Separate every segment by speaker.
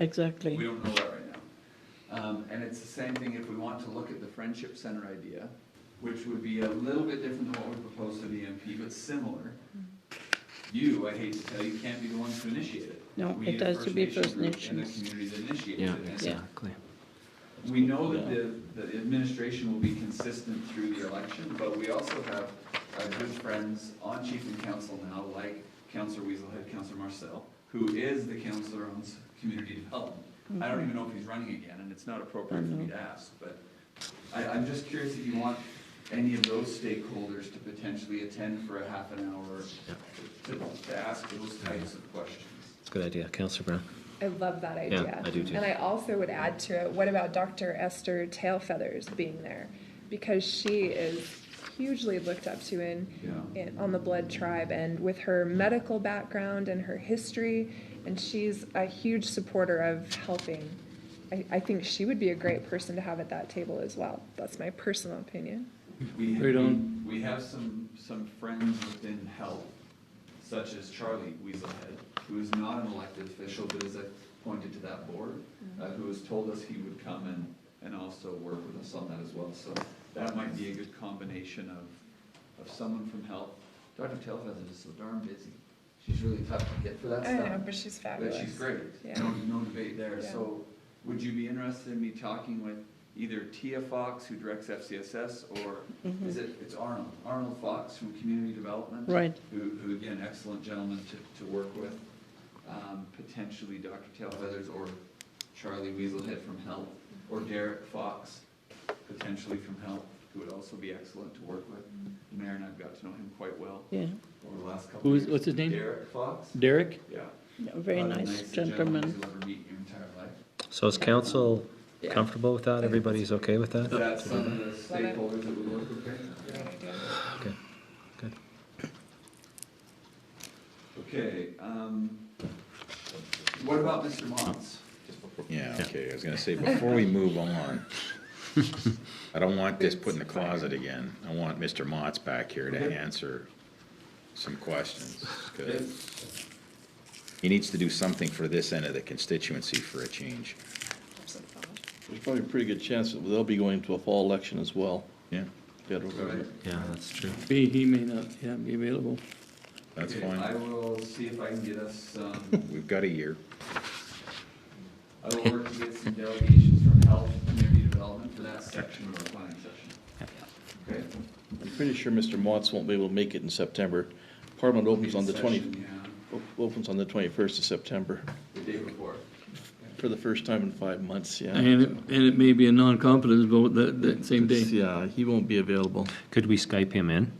Speaker 1: exactly.
Speaker 2: We don't know that right now. Um, and it's the same thing if we want to look at the Friendship Center idea, which would be a little bit different than what we proposed to the MP, but similar. You, I hate to tell you, can't be the ones to initiate it.
Speaker 1: No,
Speaker 2: We
Speaker 1: it
Speaker 2: need a
Speaker 1: has to be
Speaker 2: Nation
Speaker 1: First
Speaker 2: group
Speaker 1: Nations.
Speaker 2: And the community that initiates it.
Speaker 3: Yeah,
Speaker 2: And
Speaker 3: exactly.
Speaker 2: We know that the, the administration will be consistent through the election, but we also have uh, good friends on chief and council now, like Councillor Weaselhead, Councillor Marcel, who is the councillor on s- community development. I don't even know if he's running again, and it's not appropriate for me to ask, but I, I'm just curious if you want any of those stakeholders to potentially attend for a half an hour
Speaker 3: Yeah.
Speaker 2: to, to ask those types of questions.
Speaker 3: It's a good idea. Councillor Brown?
Speaker 4: I love that
Speaker 3: Yeah,
Speaker 4: idea.
Speaker 3: I do too.
Speaker 4: And I also would add to it, what about Dr. Esther Tailfeathers being there? Because she is hugely looked up to in,
Speaker 2: Yeah.
Speaker 4: in on the blood tribe and with her medical background and her history, and she's a huge supporter of helping. I, I think she would be a great person to have at that table as well. That's my personal opinion.
Speaker 2: We,
Speaker 5: Right
Speaker 2: we,
Speaker 5: on.
Speaker 2: we have some, some friends within health, such as Charlie Weaselhead, who is not an elected official, but is appointed to that board,
Speaker 4: Mm-hmm.
Speaker 2: uh, who has told us he would come and, and also work with us on that as well. So that might be a good combination of, of someone from health. Dr. Tailfeather is so darn busy. She's really tough to get for that
Speaker 4: I
Speaker 2: stuff.
Speaker 4: know, but she's
Speaker 2: But
Speaker 4: fabulous.
Speaker 2: she's great,
Speaker 4: Yeah.
Speaker 2: no, no debate there,
Speaker 4: Yeah.
Speaker 2: so would you be interested in me talking with either Tia Fox, who directs FCSS, or
Speaker 1: Mm-hmm.
Speaker 2: is it, it's Arnold, Arnold Fox from Community Development?
Speaker 1: Right.
Speaker 2: Who, who again, excellent gentleman to, to work with, um, potentially Dr. Tailfeathers or Charlie Weaselhead from Health, or Derek Fox, potentially from Health, who would also be excellent to work with. Mayor and I've got to know him quite well
Speaker 1: Yeah,
Speaker 2: over the last couple of
Speaker 5: Who
Speaker 2: years.
Speaker 5: is- what's his name?
Speaker 2: Derek Fox,
Speaker 5: Derek?
Speaker 2: yeah.
Speaker 1: no, very
Speaker 2: Probably
Speaker 1: nice
Speaker 2: nicest
Speaker 1: gentleman.
Speaker 2: You'll ever meet in your entire life.
Speaker 3: So is council
Speaker 4: Yeah.
Speaker 3: comfortable with that? Everybody's okay with
Speaker 2: Is
Speaker 3: that?
Speaker 2: that some of the stakeholders that we work with? right?
Speaker 4: Great idea.
Speaker 3: Okay, good.
Speaker 2: Okay, um, what about Mr. Mons?
Speaker 6: Yeah, okay, I was gonna say, before we move on, I don't want this put in the closet again. I want Mr. Motts back here to
Speaker 2: Okay.
Speaker 6: answer some questions. 'cause He needs to do something for this end of the constituency for a change,
Speaker 5: There's probably a pretty good chance that they'll be going to a fall election as well.
Speaker 6: yeah?
Speaker 5: Federal government.
Speaker 3: Yeah, that's true.
Speaker 5: He, he may not, yeah, be available.
Speaker 6: That's
Speaker 2: Okay, I
Speaker 6: fine,
Speaker 2: will see if I can get us, um,
Speaker 6: we've got a year.
Speaker 2: I will work to get some delegations from health and community development for that section of our planning session. Okay?
Speaker 5: I'm pretty sure Mr. Motts won't be able to make it in September. Parliament opens on the twenty,
Speaker 2: Session, yeah,
Speaker 5: op- opens on the twenty-first of September,
Speaker 2: The day before.
Speaker 5: for the first time in five months, yeah.
Speaker 7: And it, and it may be a non-competence vote that, that same
Speaker 5: It's-
Speaker 7: day.
Speaker 5: Yeah, he won't be available.
Speaker 3: Could we Skype him in?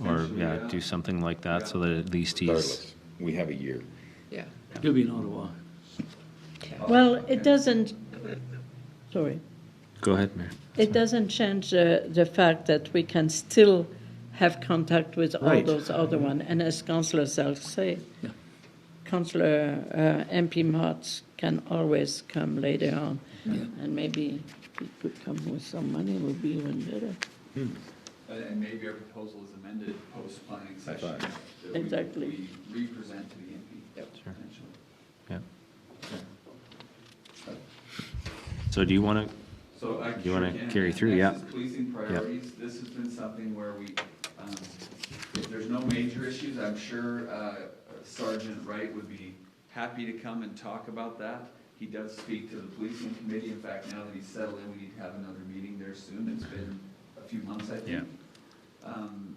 Speaker 3: Or,
Speaker 2: Potentially,
Speaker 3: yeah,
Speaker 2: yeah.
Speaker 3: do something like that so that at least he's,
Speaker 6: Regardless, we have a year.
Speaker 4: Yeah.
Speaker 7: He'll be in Ottawa.
Speaker 2: Uh,
Speaker 1: Well, it doesn't, sorry,
Speaker 3: go ahead, Mayor.
Speaker 1: it doesn't change the, the fact that we can still have contact with all
Speaker 5: Right.
Speaker 1: those other one. And as Councillor Selk say,
Speaker 7: Yeah.
Speaker 1: Councillor uh, MP Martz can always come later on. And maybe if he could come with some money, it would be even better.
Speaker 2: And- And maybe our proposal is amended post-planning
Speaker 6: I
Speaker 2: session.
Speaker 6: thought-
Speaker 2: that we-
Speaker 1: Exactly.
Speaker 2: We represent to the MP. potentially.
Speaker 3: Yeah. So do you want to,
Speaker 2: So I.
Speaker 3: You wanna
Speaker 2: sure can.
Speaker 3: carry through, yeah.
Speaker 2: Next is policing priorities, this has been something where we, um, if there's no major issues, I'm sure uh, Sergeant Wright would be happy to come and talk about that. He does speak to the policing committee, in fact, now that he's settled in, we need to have another meeting there soon, it's been a few months, I
Speaker 3: Yeah.
Speaker 2: think. Um,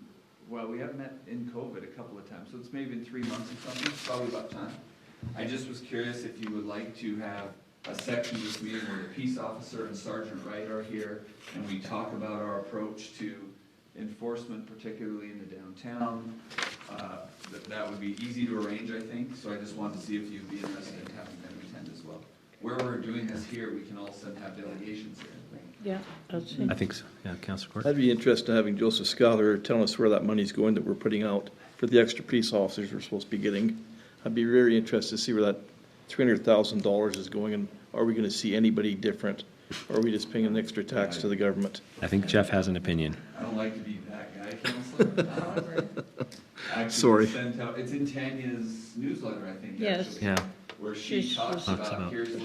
Speaker 2: Well, we have met in COVID a couple of times, so it's maybe been three months or something, it's probably about time. I just was curious if you would like to have a section of this meeting where the peace officer and Sergeant Wright are here, and we talk about our approach to enforcement, particularly in the downtown. Uh, That, that would be easy to arrange, I think, so I just wanted to see if you'd be interested in having them attend as well. Where we're doing this here, we can also have delegations here, I think.
Speaker 1: Yeah, I think.
Speaker 3: I think so, yeah, Councillor Court?
Speaker 5: I'd be interested in having Joseph Schuyler telling us where that money's going that we're putting out for the extra police officers we're supposed to be getting. I'd be very interested to see where that three hundred thousand dollars is going, and are we gonna see anybody different? Or Are we just paying an extra tax to the government?
Speaker 3: I think Jeff has an opinion.
Speaker 2: I don't like to be that guy, counselor.
Speaker 4: However,
Speaker 2: Actually,
Speaker 5: Sorry.
Speaker 2: sent out- It's in Tanya's newsletter, I think,
Speaker 1: Yes.
Speaker 2: actually,
Speaker 3: Yeah.
Speaker 2: Where she
Speaker 1: She's-
Speaker 2: talks
Speaker 3: Talks
Speaker 2: about,
Speaker 3: about-
Speaker 2: here's